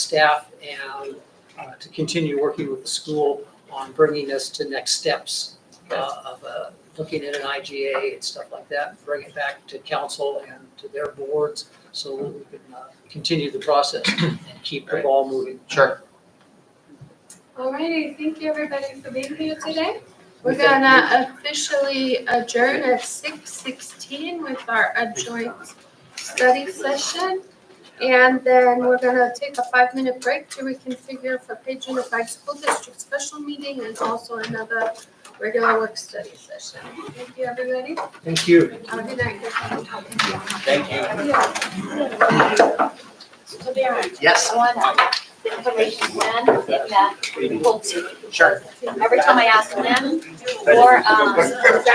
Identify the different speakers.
Speaker 1: staff and uh, to continue working with the school on bringing us to next steps uh, of uh, looking at an IGA and stuff like that, bring it back to council and to their boards so that we can uh, continue the process and keep the ball moving.
Speaker 2: Sure.
Speaker 3: Alrighty, thank you everybody for being here today. We're
Speaker 1: We thank
Speaker 3: gonna officially adjourn at six sixteen with our adjourned study session. And then we're gonna take a five-minute break to reconfigure for Page Unified School District special meeting and also another regular work study session. Thank you, everybody.
Speaker 1: Thank you.
Speaker 3: Have a good night.
Speaker 2: Thank you.
Speaker 4: So Darren,
Speaker 2: Yes.
Speaker 4: I want uh, information when it met, Pulte.
Speaker 2: Sure.
Speaker 4: Every time I ask them, or, um,